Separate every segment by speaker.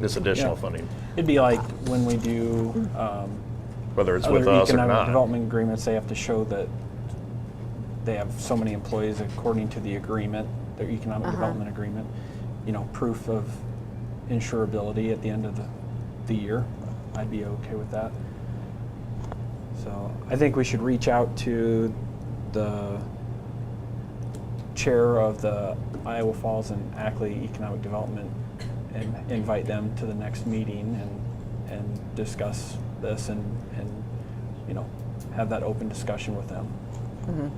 Speaker 1: this additional
Speaker 2: Yeah.
Speaker 1: funding,
Speaker 2: It'd be like when we do um,
Speaker 1: whether it's
Speaker 2: other
Speaker 1: with us or
Speaker 2: economic
Speaker 1: not.
Speaker 2: development agreements, they have to show that they have so many employees according to the agreement, their economic development agreement. You know, proof of insurability at the end of the, the year. I'd be okay with that. So I think we should reach out to the chair of the Iowa Falls and Ackley Economic Development and invite them to the next meeting and, and discuss this and, and, you know, have that open discussion with them.
Speaker 1: Mm-hmm.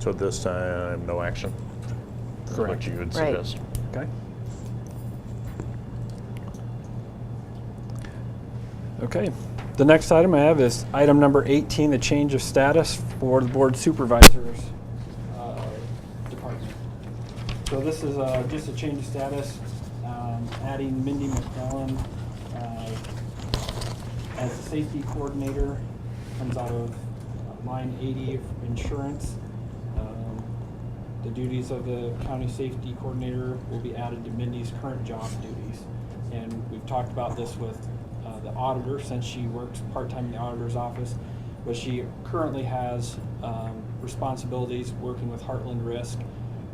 Speaker 1: So at this time, no action. That's What
Speaker 2: Correct.
Speaker 1: you would
Speaker 3: Right.
Speaker 1: suggest.
Speaker 2: Okay? Okay. The next item I have is item number 18, the change of status for the board supervisors uh, department. So this is uh, just a change of status, um, adding Mindy McMillan uh, as a safety coordinator, comes out of uh, line 80 of insurance. Um, The duties of the county safety coordinator will be added to Mindy's current job duties. And we've talked about this with uh, the auditor, since she works part-time in the auditor's office, but she currently has um, responsibilities working with Heartland Risk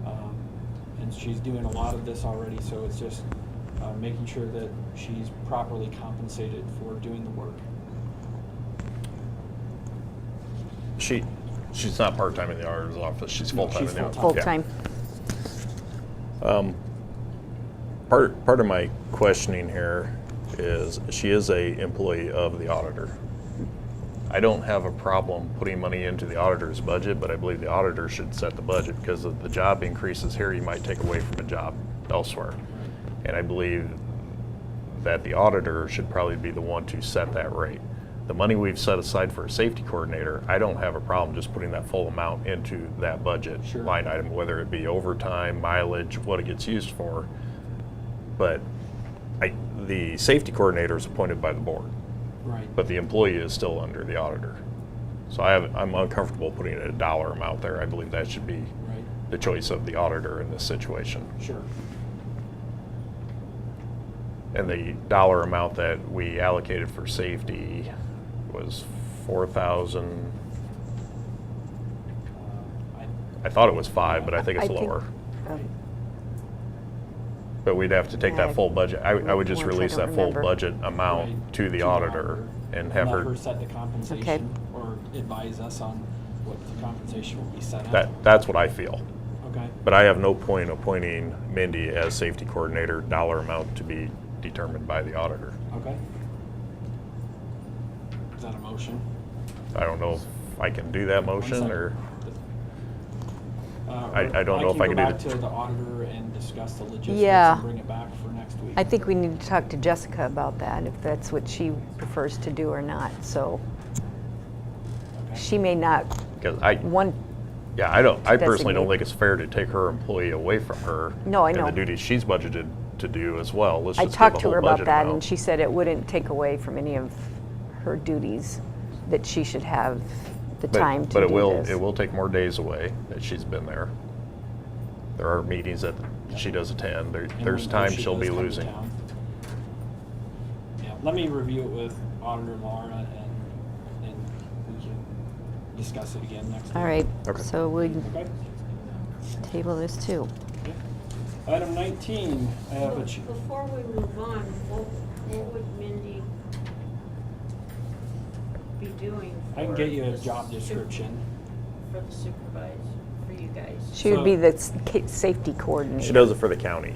Speaker 2: um, and she's doing a lot of this already, so it's just uh, making sure that she's properly compensated for doing the work.
Speaker 1: She, she's not part-time in the auditor's office, she's
Speaker 2: No,
Speaker 1: full-time
Speaker 2: she's
Speaker 1: in the.
Speaker 2: full-time.
Speaker 1: yeah.
Speaker 3: Full-time.
Speaker 1: Part, part of my questioning here is, she is a employee of the auditor. I don't have a problem putting money into the auditor's budget, but I believe the auditor should set the budget because if the job increases here, you might take away from a job elsewhere. And I believe that the auditor should probably be the one to set that rate. The money we've set aside for a safety coordinator, I don't have a problem just putting that full amount into that budget
Speaker 2: Sure.
Speaker 1: line item, whether it be overtime, mileage, what it gets used for. But I, the safety coordinator is appointed by the board,
Speaker 2: Right.
Speaker 1: but the employee is still under the auditor. So I have, I'm uncomfortable putting a dollar amount there. I believe that should be
Speaker 2: Right,
Speaker 1: the choice of the auditor in this situation.
Speaker 2: sure.
Speaker 1: And the dollar amount that we allocated for safety was four thousand,
Speaker 2: Uh, I-
Speaker 1: I thought it was five, but I think it's
Speaker 3: I think-
Speaker 1: lower.
Speaker 3: Um,
Speaker 1: But we'd have to take that
Speaker 3: Yeah.
Speaker 1: full budget, I, I would just
Speaker 3: Which I
Speaker 1: release
Speaker 3: don't
Speaker 1: that full
Speaker 3: remember.
Speaker 1: budget amount
Speaker 2: right,
Speaker 1: to the auditor and have her,
Speaker 2: set the compensation or advise us on what the compensation will be set at.
Speaker 1: that, that's what I feel.
Speaker 2: Okay,
Speaker 1: But I have no point appointing Mindy as safety coordinator, dollar amount to be determined by the auditor.
Speaker 2: okay. Is that a motion?
Speaker 1: I don't know if I can do that
Speaker 2: One
Speaker 1: motion
Speaker 2: second.
Speaker 1: or,
Speaker 2: Uh,
Speaker 1: I- I don't know if I can do
Speaker 2: go back
Speaker 1: the-
Speaker 2: to the auditor and discuss the logistics
Speaker 3: Yeah.
Speaker 2: and bring it back for next week.
Speaker 3: I think we need to talk to Jessica about that, if that's what she prefers to do or not. So
Speaker 2: Okay.
Speaker 3: she may not
Speaker 1: because I,
Speaker 3: want,
Speaker 1: yeah, I don't, I personally don't
Speaker 3: Designate.
Speaker 1: think it's fair to take her employee away from her.
Speaker 3: No, I
Speaker 1: And the
Speaker 3: know.
Speaker 1: duties she's budgeted to do as well. Let's
Speaker 3: I
Speaker 1: just give
Speaker 3: talked
Speaker 1: the
Speaker 3: to her
Speaker 1: whole
Speaker 3: about
Speaker 1: budget
Speaker 3: that, and
Speaker 1: amount.
Speaker 3: she said it wouldn't take away from any of her duties, that she should have the
Speaker 1: But-
Speaker 3: time to do this.
Speaker 1: But it will, it will take more days away that she's been there. There are meetings that she does attend. There,
Speaker 2: And
Speaker 1: there's
Speaker 2: when
Speaker 1: time
Speaker 2: she
Speaker 1: she'll
Speaker 2: does
Speaker 1: be
Speaker 2: come to
Speaker 1: losing.
Speaker 2: town. Yeah, let me review it with Auditor Laura, and, and we can discuss it again next week.
Speaker 3: All right,
Speaker 1: Okay.
Speaker 3: so we
Speaker 2: Okay?
Speaker 3: table this too.
Speaker 2: Okay. Item 19, I have a, ch-
Speaker 4: Before we move on, what, what would Mindy be doing?
Speaker 2: I can
Speaker 4: for
Speaker 2: get you a
Speaker 4: the
Speaker 2: job
Speaker 4: su-
Speaker 2: description.
Speaker 4: For the supervisor, for you guys.
Speaker 3: She would be
Speaker 2: So-
Speaker 3: the s- ca- safety coordinator.
Speaker 1: She does it for the county.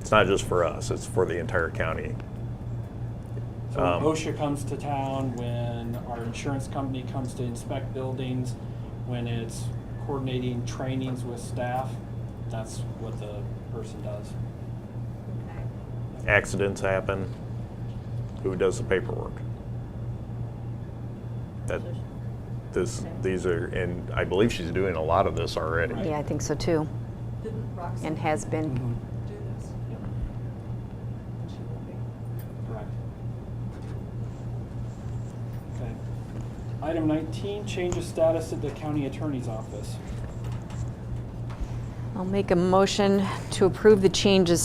Speaker 1: It's not just for us, it's for the entire county.
Speaker 2: So when
Speaker 1: Um,
Speaker 2: OSHA comes to town, when our insurance company comes to inspect buildings, when it's coordinating trainings with staff, that's what the person does.
Speaker 4: Okay.
Speaker 1: Accidents happen, who does the paperwork? That, this, these are, and I believe she's doing a lot of this already.
Speaker 2: Right.
Speaker 3: Yeah, I think so too,
Speaker 5: Didn't Roxanne
Speaker 3: and has been.
Speaker 5: do this?
Speaker 2: Yep,
Speaker 5: She will be.
Speaker 2: Correct. Okay. Item nineteen, change of status at the county attorney's office.
Speaker 5: Mm-hmm.
Speaker 3: I'll make a motion to approve the changes